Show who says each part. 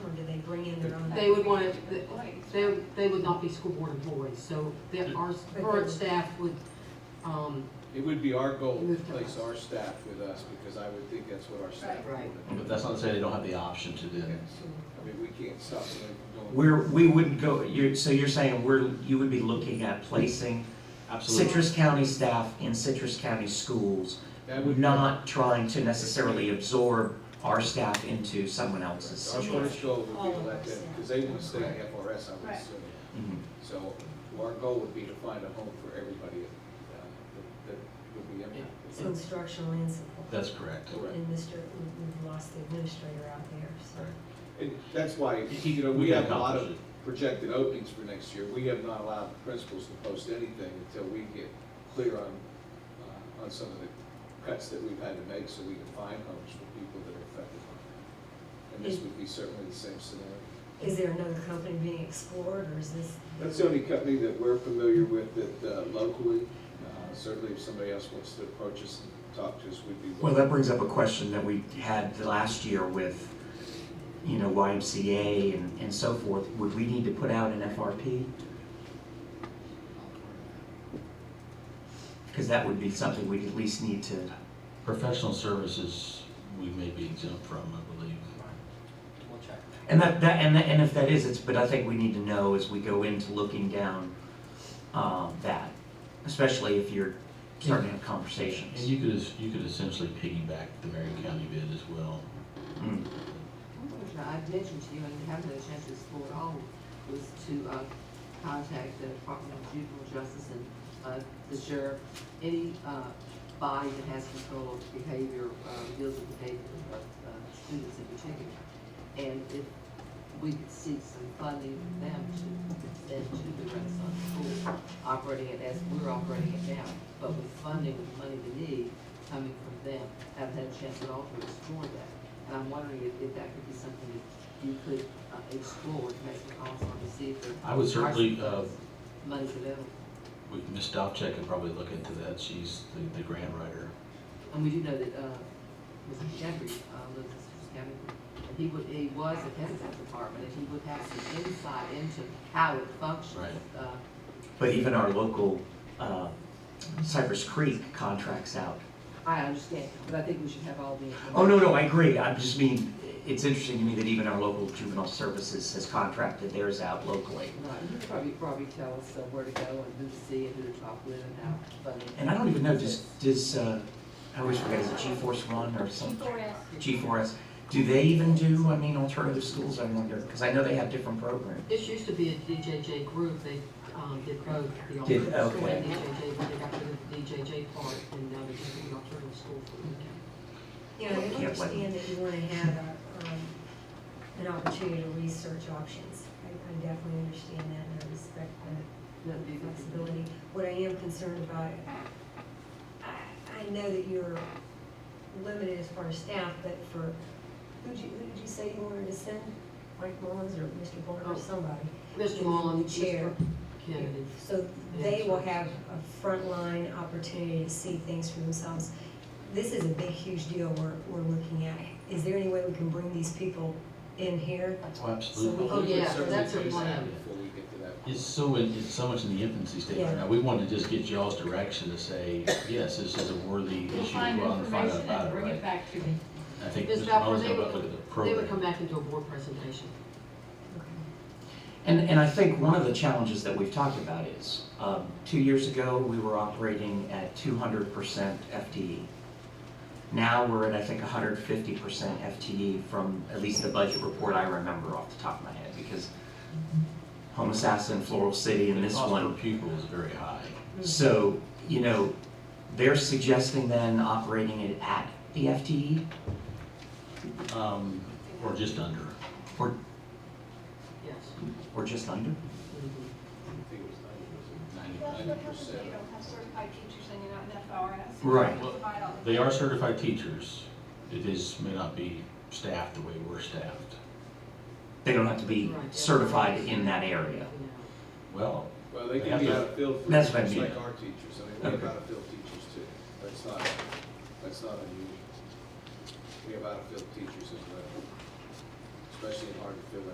Speaker 1: they would want to, they, they would not be school board employees, so that our current staff would, um,
Speaker 2: It would be our goal to
Speaker 1: Move to
Speaker 2: place
Speaker 1: us.
Speaker 2: our staff with us, because I would think that's what our staff would.
Speaker 1: Right.
Speaker 2: want.
Speaker 3: But that's not to say they don't have the option to do that.
Speaker 2: I mean, we can't stop them from going.
Speaker 4: We're, we wouldn't go, you're, so you're saying we're, you would be looking at placing Citrus County staff in Citrus County schools,
Speaker 2: That would-
Speaker 4: not trying to necessarily absorb our staff into someone else's
Speaker 2: Our first
Speaker 4: situation.
Speaker 2: goal would be to let them, because they want to stay in FRS, I would
Speaker 5: Right.
Speaker 2: assume.
Speaker 4: Mhm.
Speaker 2: So our goal would be to find a home for everybody uh, that- that would be impacted.
Speaker 6: So instructional and support.
Speaker 3: That's correct.
Speaker 2: Correct.
Speaker 6: And Mr., we- we've lost the administrator out there, so.
Speaker 2: And that's why, you know,
Speaker 3: We
Speaker 2: we
Speaker 3: can
Speaker 2: have a lot
Speaker 3: accomplish
Speaker 2: of projected openings for next year. We have not allowed the principals to post anything until we get clear on, uh, on some of the cuts that we've had to make so we can find homes for people that are affected by that. And this would be certainly the same scenario.
Speaker 6: Is there another company being explored, or is this?
Speaker 2: That's the only company that we're familiar with that uh, locally, uh, certainly if somebody else wants to approach us and talk to us, we'd be
Speaker 4: Well,
Speaker 2: willing.
Speaker 4: that brings up a question that we had last year with, you know, YMCA and, and so forth. Would we need to put out an FRP? Because that would be something we'd at least need to,
Speaker 3: Professional services, we may be exempt from, I believe.
Speaker 4: and that, that, and that, and if that is, it's, but I think we need to know as we go into looking down, um, that, especially if you're starting to have
Speaker 3: And
Speaker 4: conversations.
Speaker 3: you could, es- you could essentially piggyback the Marion County bid as well.
Speaker 4: Mm.
Speaker 7: Oh, I've mentioned to you, and you haven't had a chance to explore at all, was to, uh, contact the Department of Juvenile Justice and, uh, the sheriff, any, uh, body that has control of behavior, uh, deals with behavior of, uh, students in particular. And if we could seek some funding from them to, and to the Renaissance School, operating it as we're operating it now, but with funding, with money we need, coming from them, haven't had a chance at all to explore that. And I'm wondering if, if that could be something that you could uh, explore, to make some calls on to see if there.
Speaker 3: I would certainly,
Speaker 7: are
Speaker 3: uh,
Speaker 7: some Money's available,
Speaker 3: we, Ms. Dovcek could probably look into that. She's the, the grant writer.
Speaker 7: and we do know that, uh, Mr. Jeffrey, uh, lives in Citrus County, and he would, he was a Penzance department, and he would have some insight into how it functions.
Speaker 3: Right.
Speaker 7: Uh,
Speaker 4: But even our local, uh, Cypress Creek contracts out
Speaker 7: I understand, but I think we should have all the.
Speaker 4: Oh, no, no, I agree. I just mean, it's interesting to me that even our local juvenile services has contracted theirs out locally.
Speaker 7: Right, Uh, you could probably, probably tell us uh, where to go and who to see and who to talk with and how funding.
Speaker 4: And I don't even know, does, does, uh, I wish we had a G-Force One or some, G4S, do they even do, I mean, alternative schools, I wonder? Because I know they have different programs.
Speaker 1: This used to be a DJJ group, they, um, did both, the
Speaker 4: Did-
Speaker 1: alternative school
Speaker 4: okay.
Speaker 1: and DJJ, but they got rid of the DJJ part, and now they're just doing alternative school for the weekend.
Speaker 6: You know, I
Speaker 4: Can't blame
Speaker 6: understand that you want to have a, um, an opportunity to research options. I I definitely understand that, and I respect that.
Speaker 7: That'd be
Speaker 6: the
Speaker 7: good.
Speaker 6: flexibility. What I am concerned about, I, I know that you're limited as far as staff, but for, who'd you, who did you say you wanted to send? Mike Mullins or Mr. Bourne
Speaker 1: Oh.
Speaker 6: or somebody?
Speaker 1: Mr. Mullen,
Speaker 6: The chair.
Speaker 1: Mr. Kennedy.
Speaker 6: So they will have a frontline opportunity to see things for themselves. This is a big, huge deal we're, we're looking at. Is there any way we can bring these people in here?
Speaker 3: Oh, absolutely.
Speaker 6: So we-
Speaker 2: We would
Speaker 1: yeah,
Speaker 2: certainly
Speaker 1: that's a
Speaker 2: face that
Speaker 1: plan.
Speaker 2: Before we get to that.
Speaker 3: It's so, in- it's so much in the infancy stage right
Speaker 6: Yeah.
Speaker 3: now. We want to just get y'all's direction to say, yes, this is a worthy issue.
Speaker 5: We'll find
Speaker 3: Go out and find out
Speaker 5: information
Speaker 3: about
Speaker 5: and
Speaker 3: it,
Speaker 5: bring
Speaker 3: right?
Speaker 5: it back to me.
Speaker 3: I think
Speaker 1: Ms.
Speaker 3: Mr.
Speaker 1: Balfour,
Speaker 3: Mullins
Speaker 1: they
Speaker 3: will
Speaker 1: would
Speaker 3: look at the
Speaker 1: They would come
Speaker 3: program.
Speaker 1: back and do a board presentation.
Speaker 4: And, and I think one of the challenges that we've talked about is, um, two years ago, we were operating at two hundred percent FTE. Now we're at, I think, hundred fifty percent FTE from at least the budget report I remember off the top of my head, because Home Assassin, Floral City, and
Speaker 3: The
Speaker 4: this
Speaker 3: cost
Speaker 4: one.
Speaker 3: per Pupil is very high.
Speaker 4: So, you know, they're suggesting then operating it at the E, FTE,
Speaker 3: Um, or just under.
Speaker 4: or,
Speaker 1: Yes.
Speaker 4: or just under?
Speaker 2: I think it was ninety, was it?
Speaker 3: Ninety.
Speaker 5: That's what happens when you don't have certified teachers hanging out in FRS.
Speaker 4: Right.
Speaker 5: You have to find all the-
Speaker 3: They are certified teachers. It is, may not be staffed the way we're staffed.
Speaker 4: They don't have to be
Speaker 1: Right.
Speaker 4: certified in that area.
Speaker 1: Mm-hmm.
Speaker 3: Well,
Speaker 2: Well, they
Speaker 3: They
Speaker 2: can
Speaker 3: have
Speaker 2: be
Speaker 3: to-
Speaker 2: out of field for
Speaker 4: That's what I
Speaker 2: teachers
Speaker 4: mean.
Speaker 2: like our teachers, I mean, we have
Speaker 4: Okay.
Speaker 2: out of field teachers too, that's not, that's not unusual. We have out of field teachers as well, especially in hard to fill